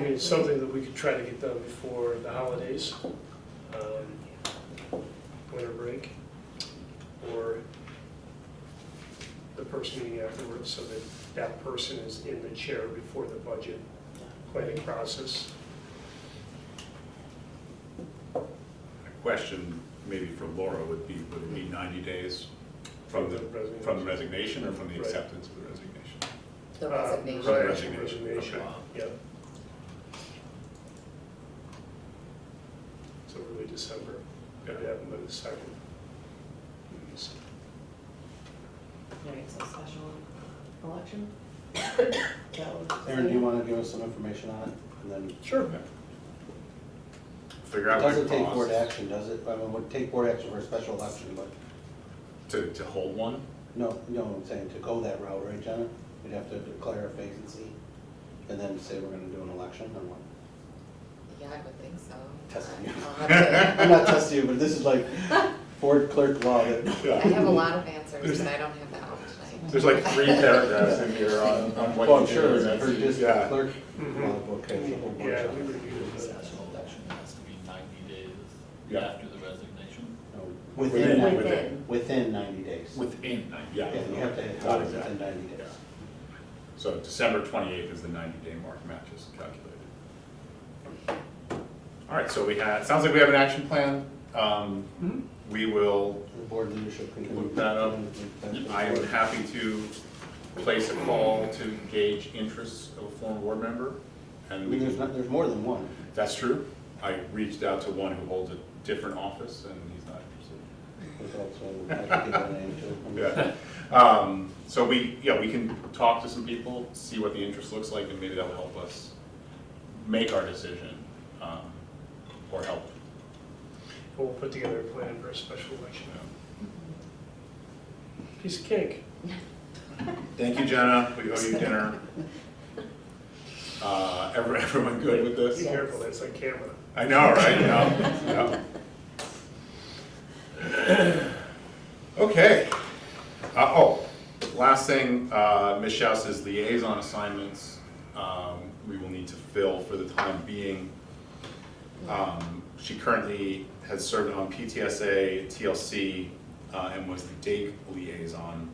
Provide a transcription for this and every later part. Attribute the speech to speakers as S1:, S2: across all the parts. S1: mean, it's something that we could try to get done before the holidays, um, winter break, or the first meeting afterwards, so that that person is in the chair before the budget planning process.
S2: A question maybe for Laura would be, would it be 90 days from the,
S1: Resignation.
S2: from the resignation or from the
S1: Right.
S2: acceptance of the resignation?
S3: The
S1: Uh,
S3: resignation.
S1: right,
S2: Resignation,
S1: Resignation,
S2: okay.
S1: yeah. So early December, gotta have by the second.
S4: Alright, so special election? That was-
S5: Aaron, do you want to give us some information on it? And then, it
S1: Sure.
S2: Figure out what
S5: doesn't
S2: it
S5: take board
S2: costs
S5: action, does it? I mean, it would take board action for a special election, but,
S2: to, to hold one?
S5: no, you know what I'm saying, to go that route, right, Jenna? You'd have to declare a vacancy and then say we're going to do an election or what?
S3: Yeah, I would think so.
S5: Testing you.
S3: I'll have to-
S5: I'm not testing you, but this is like board clerk law that,
S3: I have a lot of answers, and I don't have that one
S2: There's like three paragraphs in here on, on
S5: well,
S2: what
S5: I'm
S2: you do.
S5: sure,
S2: and
S5: it's
S2: that's-
S5: for just
S2: yeah. Mm-hmm.
S5: clerk
S1: Mhm.
S5: law book, has a whole bunch
S1: Yeah,
S5: of
S1: we
S5: it.
S1: reviewed it, but-
S6: Special election has to be ninety days
S2: Yeah.
S6: after the resignation.
S5: No,
S2: Within,
S5: Within,
S2: within.
S4: Within.
S5: within 90 days.
S6: Within ninety.
S2: Yeah.
S5: Yeah, you have to have
S2: Got it,
S5: it within
S2: yeah.
S5: 90 days.
S2: So December 28th is the 90-day mark matches calculated. All right, so we had, sounds like we have an action plan. Um,
S1: Mhm.
S2: We will
S5: The board leadership can.
S2: Look that up. I am happy to place a call to gauge interests of a former board member,
S5: I
S2: and we
S5: mean, there's not,
S2: can,
S5: there's more than one.
S2: that's true. I reached out to one who holds a different office, and he's not
S5: There's also, I can give that name too.
S2: interested. Yeah. Um, So we, yeah, we can talk to some people, see what the interest looks like, and maybe that'll help us make our decision, um, or help,
S1: We'll put together a plan for a special election.
S2: you know.
S1: Piece of cake.
S2: Thank you, Jenna, we owe you dinner. Uh, every- Everyone good with this?
S1: Be careful, that's like camera.
S2: I know, right? Yeah, yeah. Okay. Uh, oh, last thing, uh, Ms. Schaus's liaison assignments, um, we will need to fill for the time being. Um, she currently has served on PTSA, TLC, uh, and was the DAKE liaison.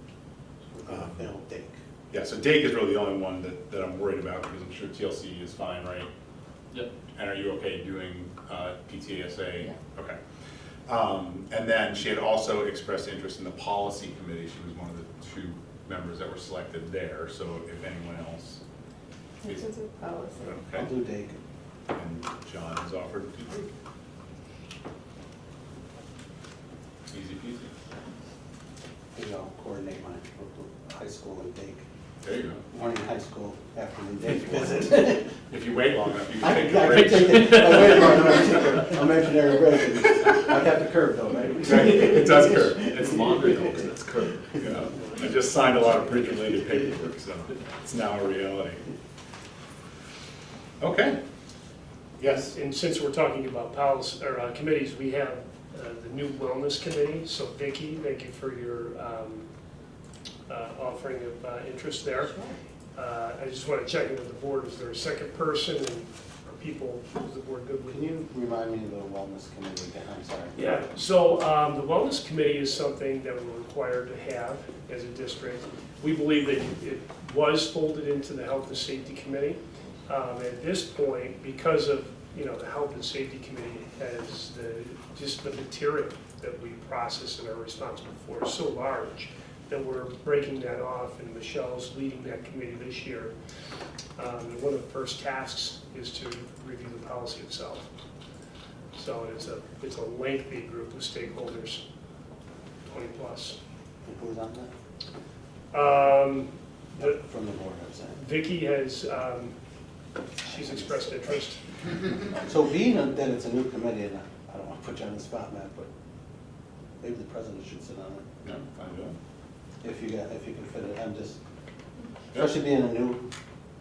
S5: Uh, They don't think.
S2: Yeah, so DAKE is really the only one that, that I'm worried about, because I'm sure TLC is fine, right?
S6: Yep.
S2: And are you okay doing uh, PTSA?
S3: Yeah.
S2: Okay. Um, And then she had also expressed interest in the policy committee. She was one of the two members that were selected there, so if anyone else is,
S3: Oh,
S5: I'll
S2: okay.
S5: do Dake.
S2: And John has offered to do it. Easy peasy.
S5: Maybe I'll coordinate my local high school and Dake.
S2: There you go.
S5: Morning high school, afternoon Dake visit.
S2: If you wait long enough, you
S5: I
S2: can
S5: could,
S2: take
S5: I
S2: a
S5: could
S2: break.
S5: take it, I waited long enough to take a- a imaginary break. and I'd have to curve though, right?
S2: Right, It does curve. It's longer though, because it's curved. Yeah. I just signed a lot of bridge-related paperwork, so it's now a reality. Okay. Yes.
S1: And since we're talking about policy, or uh, committees, we have uh, the new wellness committee. So Vicky, thank you for your um, uh, offering of uh, interest there. Uh, I just want to check in with the board, is there a second person, and are people, is the board good with
S5: Can
S1: you?
S5: you remind me of the wellness committee again? I'm sorry.
S1: Yeah, so um, the wellness committee is something that we're required to have as a district. We believe that it was folded into the health and safety committee. Um, At this point, because of, you know, the health and safety committee has the, just the material that we process and are responsible for is so large that we're breaking that off, and Michelle's leading that committee this year. Um, And one of the first tasks is to review the policy itself. So it's a, it's a lengthy group of stakeholders, 20 plus.
S5: Who's on
S1: Um, the-
S5: that? From the board, I'm saying.
S1: Vicky has, um, she's expressed interest.
S5: So being that it's a new committee, and I don't want to put you on the spot, Matt, but maybe the president should sit on it,
S2: No, I don't.
S5: if you got, if you can fit it, I'm just, especially being a new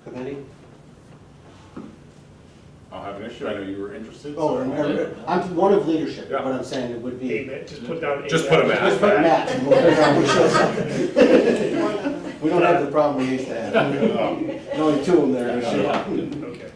S5: committee.
S2: I'll have an issue, I know you were interested,
S5: Oh,
S2: so.
S5: and every- I'm one of leadership,
S2: Yeah.
S5: what I'm saying, it would
S1: Hey,
S5: be.
S1: Matt, just put down. hey,
S2: Just put a
S1: Matt.
S5: Just put Matt, and we'll figure out which one. We don't have the problem we used to have,
S2: Um,
S5: There's only two of them there.
S2: Yeah.
S5: so-
S1: Okay.